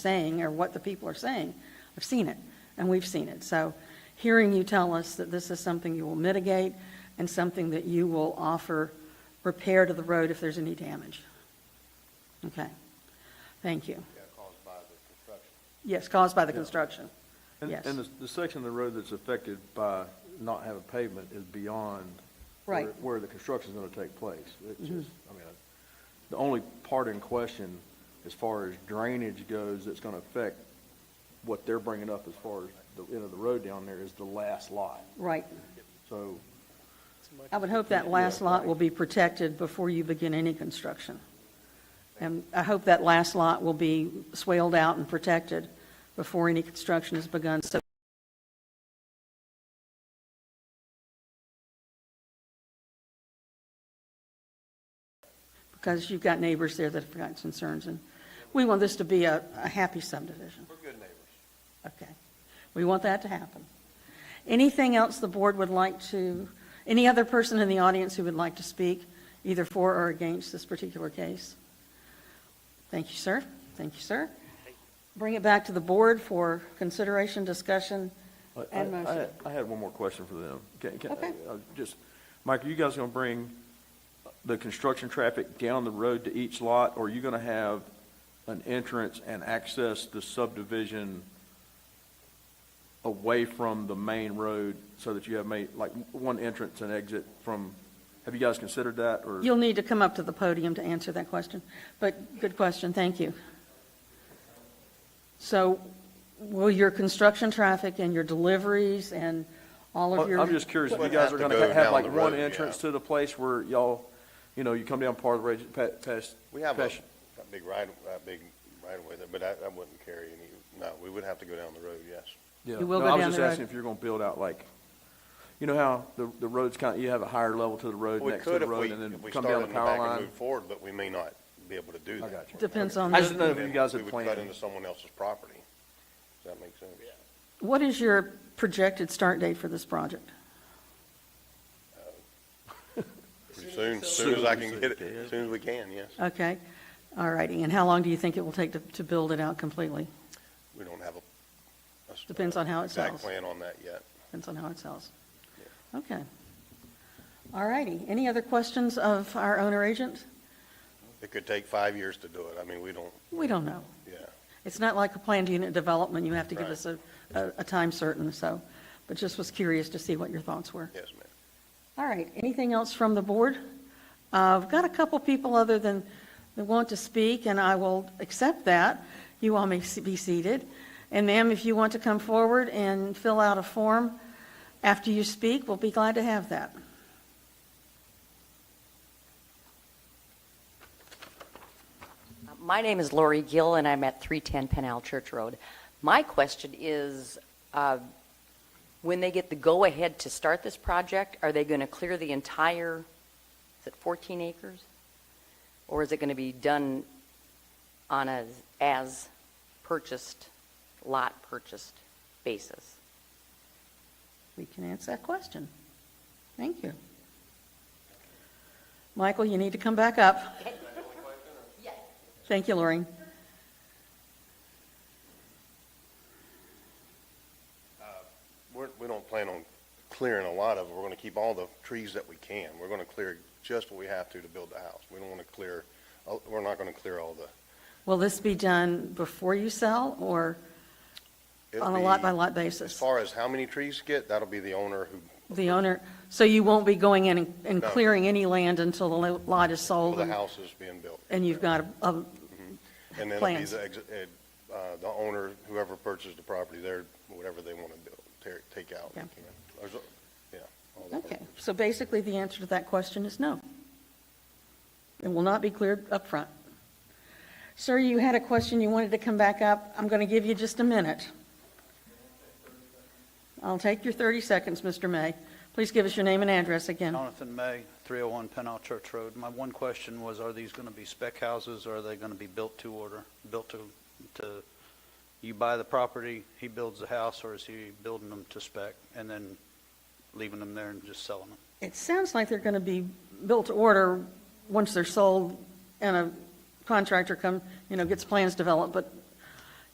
saying or what the people are saying. I've seen it, and we've seen it. So hearing you tell us that this is something you will mitigate and something that you will offer repair to the road if there's any damage. Okay. Thank you. Yeah, caused by the construction. Yes, caused by the construction. And- Yes. And the, the section of the road that's affected by not having pavement is beyond. where- Right. Mm-hmm. Where the construction's gonna take place. It's just, I mean, the only part in question as far as drainage goes that's gonna affect what they're bringing up as far as the end of the road down there is the last lot. Right. So, I would hope that last Yeah. lot will be protected before you begin any construction. And I hope that last lot will be swaled out and protected before any construction is begun, so because you've got neighbors there that have got concerns, and we want this to be a, a happy subdivision. We're good neighbors. Okay. We want that to happen. Anything else the board would like to, any other person in the audience who would like to speak, either for or against this particular case? Thank you, sir. Thank you, sir. Bring it back to the board for consideration, discussion, I, I- and motion. I- I had one more question for them. Can, can, Okay. uh, just, Mike, are you guys gonna bring the construction traffic down the road to each lot? Or are you gonna have an entrance and access the subdivision away from the main road so that you have made, like, one entrance and exit from, have you guys considered that or? You'll need to come up to the podium to answer that question, but good question, thank you. So will your construction traffic and your deliveries and all of your? I'm just curious if you Wouldn't guys have are to gonna go have down like the one road, entrance yeah. to the place where y'all, you know, you come down part of the road, pa- past. We have a, past- a big right, a big right away there, but I, I wouldn't carry any, no, we would have to go down the road, yes. Yeah. You will No, go I was down just the road. asking if you're gonna build out like, you know how the, the road's kind of, you have a higher level to the road, We next to could the if we, road, and if then we come started down the in the back power and line? moved forward, but we may not be able to do I that. got you. Depends on I just didn't know the, if you guys We had would cut into planned. someone else's property. Does that make sense? what is your projected start date for this project? Pretty soon, as soon as I can get it, as soon as we can, yes. Okay, all righty, and how long do you think it will take to, to build it out completely? We don't have a. a s- Depends on how it Exact sells. plan on that yet. Depends on how it sells. Okay. All righty, any other questions of our owner agent? It could take five years to do it. I mean, we don't, We don't know. yeah. It's not like a planned unit development, you have to give Right. us a, a a time certain, so, but just was curious to see what your thoughts were. Yes, ma'am. All right, anything else from the board? Uh, I've got a couple people other than, that want to speak, and I will accept that. You all may s- be seated. And ma'am, if you want to come forward and fill out a form after you speak, we'll be glad to have that. My name is Lori Gill, and I'm at 310 Penal Church Road. My question is, uh, when they get the go-ahead to start this project, are they going to clear the entire, is it 14 acres? Or is it going to be done on a as-purchased, lot-purchased basis? We can answer that question. Thank you. Michael, you need to come back up. Thank you, Lorraine. We're, we don't plan on clearing a lot of it. We're gonna keep all the trees that we can. We're gonna clear just what we have to to build the house. We don't wanna clear, uh, we're not gonna clear all the. Will this be done before you sell, or it'll on a be- lot-by-lot As basis? far as how many trees get, that'll be the owner who, The owner, so you won't be going in and- and No. clearing any land until the lo- lot is till sold the and, house is being built. and you've got a, a- And then it'll be plans. the, ex- uh, uh, the owner, whoever purchased the property, their, whatever they wanna build, tear, take out. Yeah. There's a- Yeah. all the- okay. So basically, the answer to that question is no. It will not be cleared up front. Sir, you had a question, you wanted to come back up. I'm going to give you just a minute. I'll take your 30 seconds, Mr. May. Please give us your name and address again. Jonathan May, 301 Pennell Church Road. My one question was, are these going to be spec houses, or are they going to be built to order? Built to, to, you buy the property, he builds the house, or is he building them to spec and then leaving them there and just selling them? It sounds like they're going to be built to order once they're sold and a contractor come, you know, gets plans developed, but